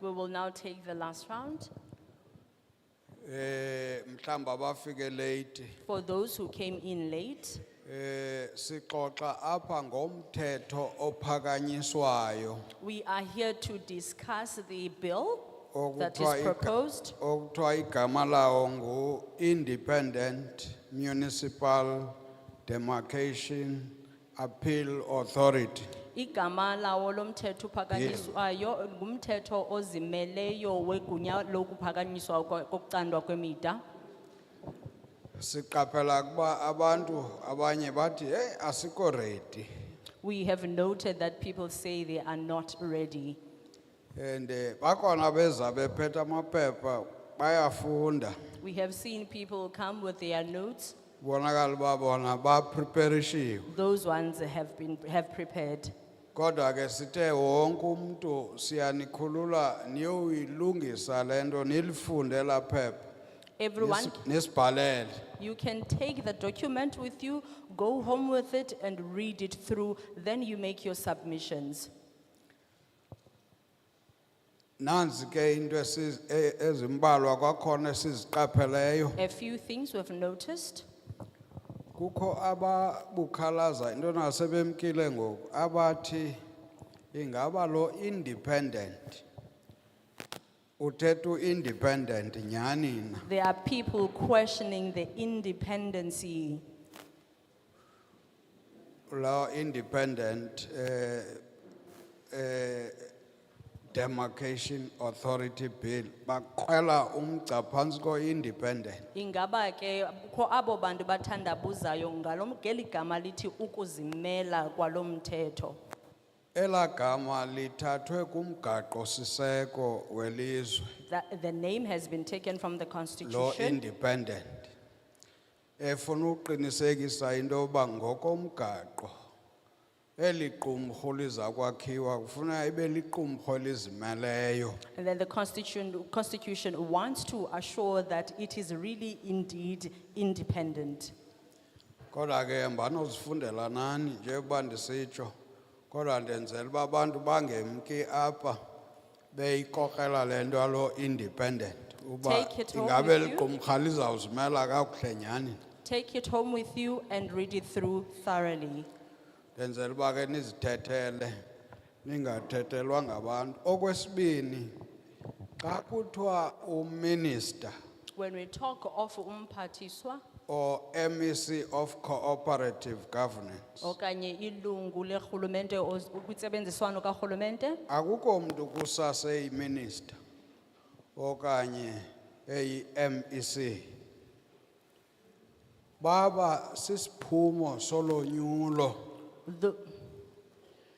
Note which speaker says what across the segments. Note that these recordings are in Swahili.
Speaker 1: We will now take the last round.
Speaker 2: Eh mhlamba bafike late
Speaker 1: For those who came in late,
Speaker 2: eh sixoxa apha ngomthetho ophakanyiswayo
Speaker 1: we are here to discuss the bill that
Speaker 2: Okuthiwa
Speaker 1: is
Speaker 2: iga-
Speaker 1: proposed.
Speaker 2: okuthiwa igama lawo ngu Independent Municipal Demarcation Appeal Authority
Speaker 1: Igama lawo lomthetho uphakanyiswayo ngumthetho ozimeleyo wegunya lokuphakanyiswa kwe- kokucandwa kwemida.
Speaker 2: siqaphela kuba abantu abanye bathi hey asiko ready
Speaker 1: We have noted that people say they are not ready.
Speaker 2: and eh, bakhona beza bephethe amaphepha bayafunda
Speaker 1: We have seen people come with their notes.
Speaker 2: bonakala uba bona bapreparishiwe
Speaker 1: Those ones have been, have prepared.
Speaker 2: Kodwa ke sithe wonke umuntu siyanikhulula niyoyilungisa lento nilifunde laphepha
Speaker 1: Everyone,
Speaker 2: nis- nisibhalele
Speaker 1: you can take the document with you, go home with it and read it through, then you make your submissions.
Speaker 2: nanzi ke into esi- e- ezimbalwa kwakhona esiziqapheleyo
Speaker 1: A few things we've noticed.
Speaker 2: kukho ababukhalaza into nasebemkile ngoku abathi ingaba lo independent uthetha u-independent nyhani na
Speaker 1: There are people questioning the independency.
Speaker 2: law independent eh eh demarcation authority bill bakhwela umgca phansi ko independent
Speaker 1: Ingaba ke kukho abo bantu bathandabuzayo ngalo ngeli gama lithi ukuzimela kwalo mthetho.
Speaker 2: elagama lithathwe kumgaqo siseko welizwe
Speaker 1: That the name has been taken from the
Speaker 2: law
Speaker 1: constitution.
Speaker 2: independent efuna uqinisekisa into yoba ngokomgaqo eli qumrhu lizakwakhiwa kufuna ibe liqumrhu elizimeleyo
Speaker 1: And then the constitution, constitution wants to assure that it is really indeed independent.
Speaker 2: Kodwa ke mbanozifundela nani njengoba ndisitsho kodwa ndenzela uba abantu bangemki apha beyikokrela le nto yalo independent uba
Speaker 1: Take it home
Speaker 2: ingabe
Speaker 1: with you.
Speaker 2: liqumrha lizawuzimela kakuhle nyhani
Speaker 1: Take it home with you and read it through thoroughly.
Speaker 2: ndenzela uba ke nizithethele ningathethelwa ngabantu okwesibini xa kuthiwa uminister
Speaker 1: When we talk of umpatiswa,
Speaker 2: or MEC of cooperative governance
Speaker 1: okanye ilungu le hulumende, ukutsebenziswano ka hulumende,
Speaker 2: akukho mntu kusase iminister okanye E eyi MEC baba sisiphumo solonyulo
Speaker 1: the,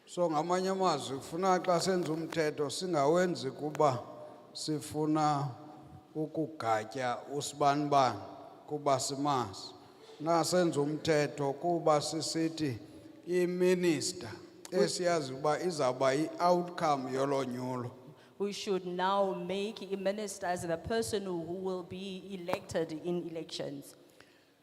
Speaker 2: so ngamanye amazwi kufuna xa senza umthetho singawenzi kuba sifuna ukugatya usibanibani kuba simazi nasenza umthetho kuba sisithi iminister esiyazi ukuba izawuba i-outcome yolonyulo
Speaker 1: we should now make a minister as the person who will be elected in elections.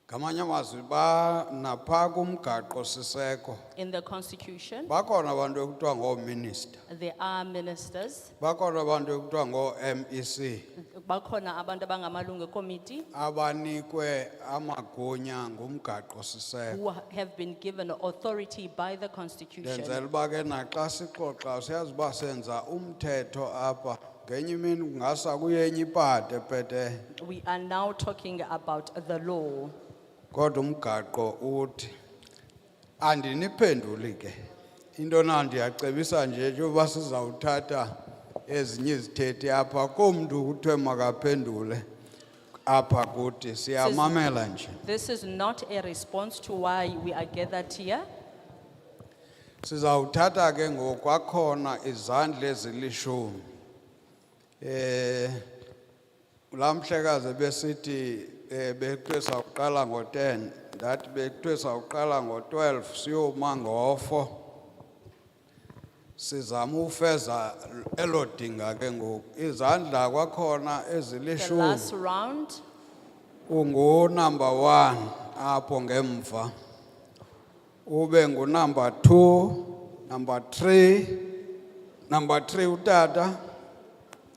Speaker 2: ngamanye amazwi ba naphaa kumgaqo siseko
Speaker 1: In the constitution,
Speaker 2: bakhona abantu ekuthiwa ngoominister
Speaker 1: there are ministers,
Speaker 2: bakhona abantu ekuthiwa E ngoo-mec
Speaker 1: bakhona abantu abangamalungu committee
Speaker 2: abanikwe amagunya ngumgaqo siseko
Speaker 1: who have been given authority by the
Speaker 2: ndenzela
Speaker 1: constitution.
Speaker 2: uba ke naxa sixoxa siyazi uba senza umthetho apha ngenye imini kungasa kuyenye ipade pete
Speaker 1: We are now talking about the law.
Speaker 2: kodwa umgaqo uthi andiniphenduli ke into na ndiyacebisa nje njengoba sizawuthatha ezinye izithethi apha komntu kuthiwe makaphendule apha kuthi siyamamela nje
Speaker 1: This is not a response to why we are gathered here.
Speaker 2: Sizawuthatha ke ngokwakhona izandla ezilishumi. Eh lamhlekaze besithi eh beqhwesa uqala ngo10 that beqhwesa uqala ngo12 siyoma ngofo. Sizama ufeza elodinga ke ngoku izandla kwakhona
Speaker 1: The
Speaker 2: ezilishumi
Speaker 1: last round,
Speaker 2: ungu number 1 apho ngemva ube ngu number 2 number 3 number 3 utata